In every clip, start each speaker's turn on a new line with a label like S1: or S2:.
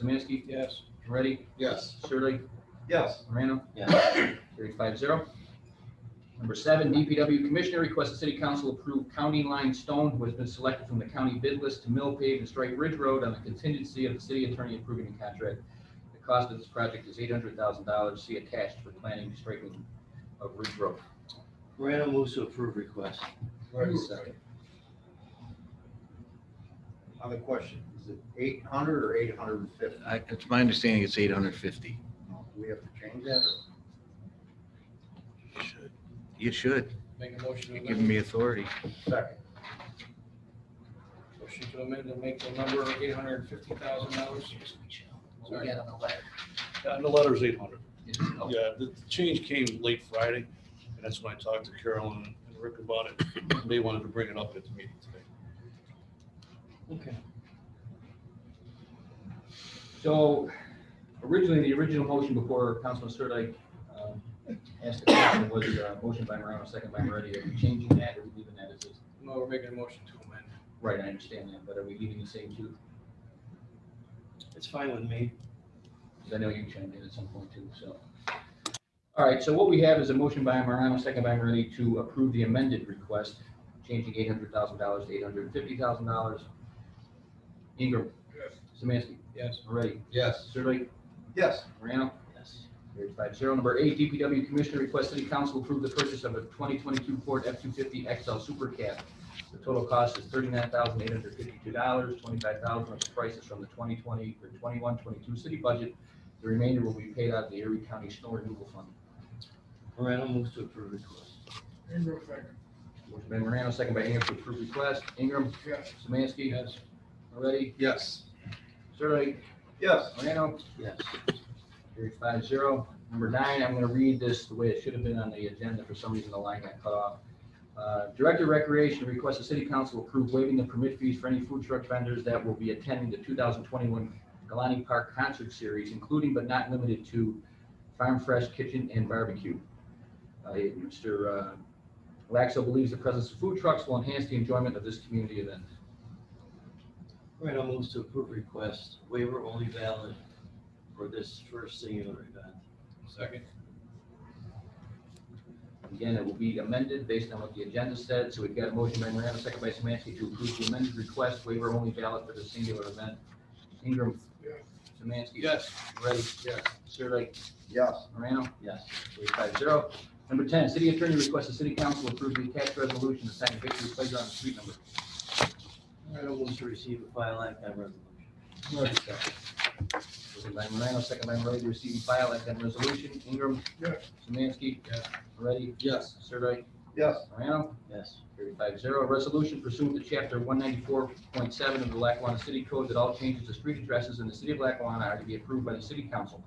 S1: Samansky,
S2: Yes.
S1: Ready,
S3: Yes.
S1: Surley,
S3: Yes.
S1: Morano,
S4: yes,
S1: carried five zero. Number seven, DPW Commissioner requests the City Council approve county line stone who has been selected from the county bid list to mill pave and strike Ridge Road on the contingency of the city attorney approving the contract. The cost of this project is eight hundred thousand dollars. See attached for planning and striking of Ridge Road.
S4: Morano moves to approve request.
S3: Ready, second. Other question, is it eight hundred or eight hundred and fifty?
S5: I, it's my understanding it's eight hundred fifty.
S3: Do we have to change that? or-
S5: You should.
S2: Make a motion to
S5: You're
S2: amend,
S5: giving me authority.
S3: Second.
S2: motion to amend and make the number eight hundred and fifty thousand dollars.
S1: What we got on the letter?
S6: And the letter's eight hundred.
S1: It's- oh,
S6: Yeah, the the change came late Friday, and that's when I talked to Carolyn and Rick about it. They wanted to bring it up at the meeting today.
S2: Okay.
S1: So originally, the original motion before Councilman Sirdike um, asked the question was uh, motion by Morano, second by Moretti. Are we changing that or are we leaving that as is?
S2: No, we're making a motion to amend.
S1: Right, I understand that, but are we leaving the same two?
S4: It's fine with me.
S1: Because I know you chimed in at some point too, so. All right, so what we have is a motion by Morano, second by Moretti to approve the amended request, changing eight hundred thousand dollars to eight hundred fifty thousand dollars. Ingram.
S2: Yes.
S1: Samansky,
S2: Yes.
S1: Moretti,
S3: Yes.
S1: Sirdike,
S3: Yes.
S1: Morano.
S4: Yes,
S1: Carried five zero. Number eight, DPW Commissioner requests City Council approve the purchase of a twenty twenty-two Ford F two fifty XL Super Cab. The total cost is thirty-nine thousand eight hundred fifty-two dollars, twenty-five thousand of the price is from the twenty twenty or 21-22 city budget. The remainder will be paid out of the Erie County Snow Removal Fund.
S4: Morano moves to approve request.
S2: Ingram second.
S1: Motion by Morano, second by Ingram to approve request. Ingram.
S2: Yes.
S1: Semansky.
S2: Yes.
S1: Moretti.
S3: Yes.
S1: Sirdike.
S3: Yes.
S1: Morano.
S4: Yes,
S1: Carried five zero. Number nine, I'm gonna read this the way it should have been on the agenda. For some reason, the line got cut off. Uh, Director of Recreation requests the city council approve waiving the permit fees for any food truck vendors that will be attending the two thousand twenty-one Galani Park Concert Series, including but not limited to Farm Fresh Kitchen and Barbecue. Uh, Mr. uh, Laxo believes the presence of food trucks will enhance the enjoyment of this community event.
S4: Morano moves to approve request, waiver only valid for this first singular event.
S2: Second.
S1: Again, it will be amended based on what the agenda said, so we've got a motion by Morano, second by Samansky to approve the amended request waiver only valid for the singular event. Ingram.
S2: Yes.
S1: Samansky.
S2: Yes.
S1: Ready.
S3: Yes.
S1: Sirdike.
S3: Yes.
S1: Morano.
S4: Yes,
S1: Carried Five zero. Number ten, city attorney requests the city council approve the attached resolution assigning Victory Playground a street number.
S4: Morano moves to receive a file act on resolution.
S1: Motion by Morano, second by Moretti to receive and file act on resolution. Ingram.
S2: Yes.
S1: Samansky.
S2: Yes.
S1: Moretti.
S3: Yes.
S1: Sirdike.
S3: Yes.
S1: Morano.
S4: Yes,
S1: Carried five zero. Resolution pursuant to chapter one ninety-four point seven of the Lackawanna City Code that all changes to street addresses in the city of Lackawanna are to be approved by the city council.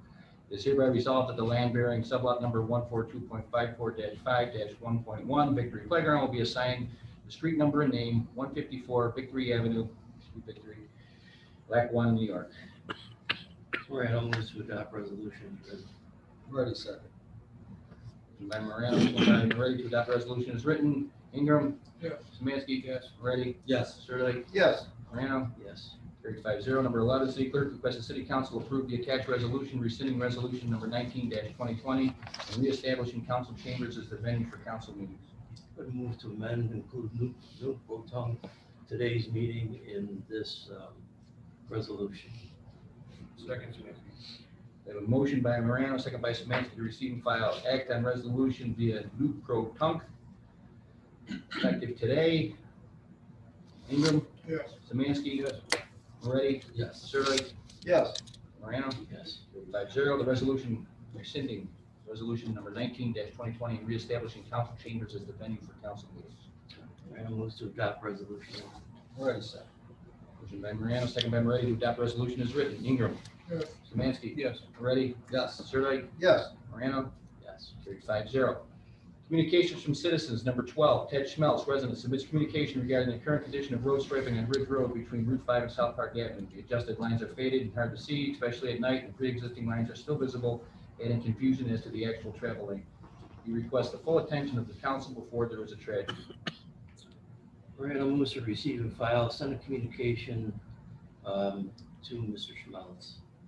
S1: It is hereby resolved that the land bearing sublot number one four two point five four five one point one Victory Playground will be assigned the street number and name one fifty-four Victory Avenue, Victory, Lackawanna, New York.
S4: Morano moves to adopt resolution. as-
S3: Ready, second.
S1: Motion By Morano, second by Moretti to adopt resolution is written. Ingram.
S2: Yes.
S1: Semansky.
S2: Yes.
S1: Moretti.
S3: Yes.
S1: Surley.
S3: Yes.
S1: Morano.
S4: Yes,
S1: Carried five zero. Number eleven, city clerk requests the city council approve the attached resolution rescinding resolution number nineteen twenty twenty and reestablishing council chambers as the venue for council meetings.
S4: would move to amend, and include Nuke, Nuke Boateng, today's meeting in this um, resolution.
S2: Second.
S1: We have a motion by Morano, second by Semansky, to receive and file act on resolution via new pro tunc. Effective today. Ingram,
S2: Yes.
S1: Semansky. Moretti,
S4: Yes,
S1: Surley,
S3: Yes.
S1: Morano.
S4: yes,
S1: Five zero, the resolution rescinding resolution number nineteen twenty twenty and reestablishing council chambers as the venue for council meetings.
S4: Morano moves to adopt resolution.
S3: Ready, second.
S1: Motion by Morano, second by Moretti to adopt resolution is written. Ingram.
S2: Yes.
S1: Semansky.
S2: Yes.
S1: Moretti.
S3: Yes.
S1: Sirdike.
S3: Yes.
S1: Morano.
S4: Yes,
S1: Carried five zero. Communications from citizens, number twelve, Ted Schmelz, resident, submits communication regarding the current condition of road striping on Ridge Road between Route five and South Park Avenue. The adjusted lines are faded and hard to see, especially at night, and pre-existing lines are still visible, adding confusion as to the actual travel lane. He requests the full attention of the council before there is a tragedy.
S4: Morano moves to receive and file, send a communication um, to Mr. Schmelz.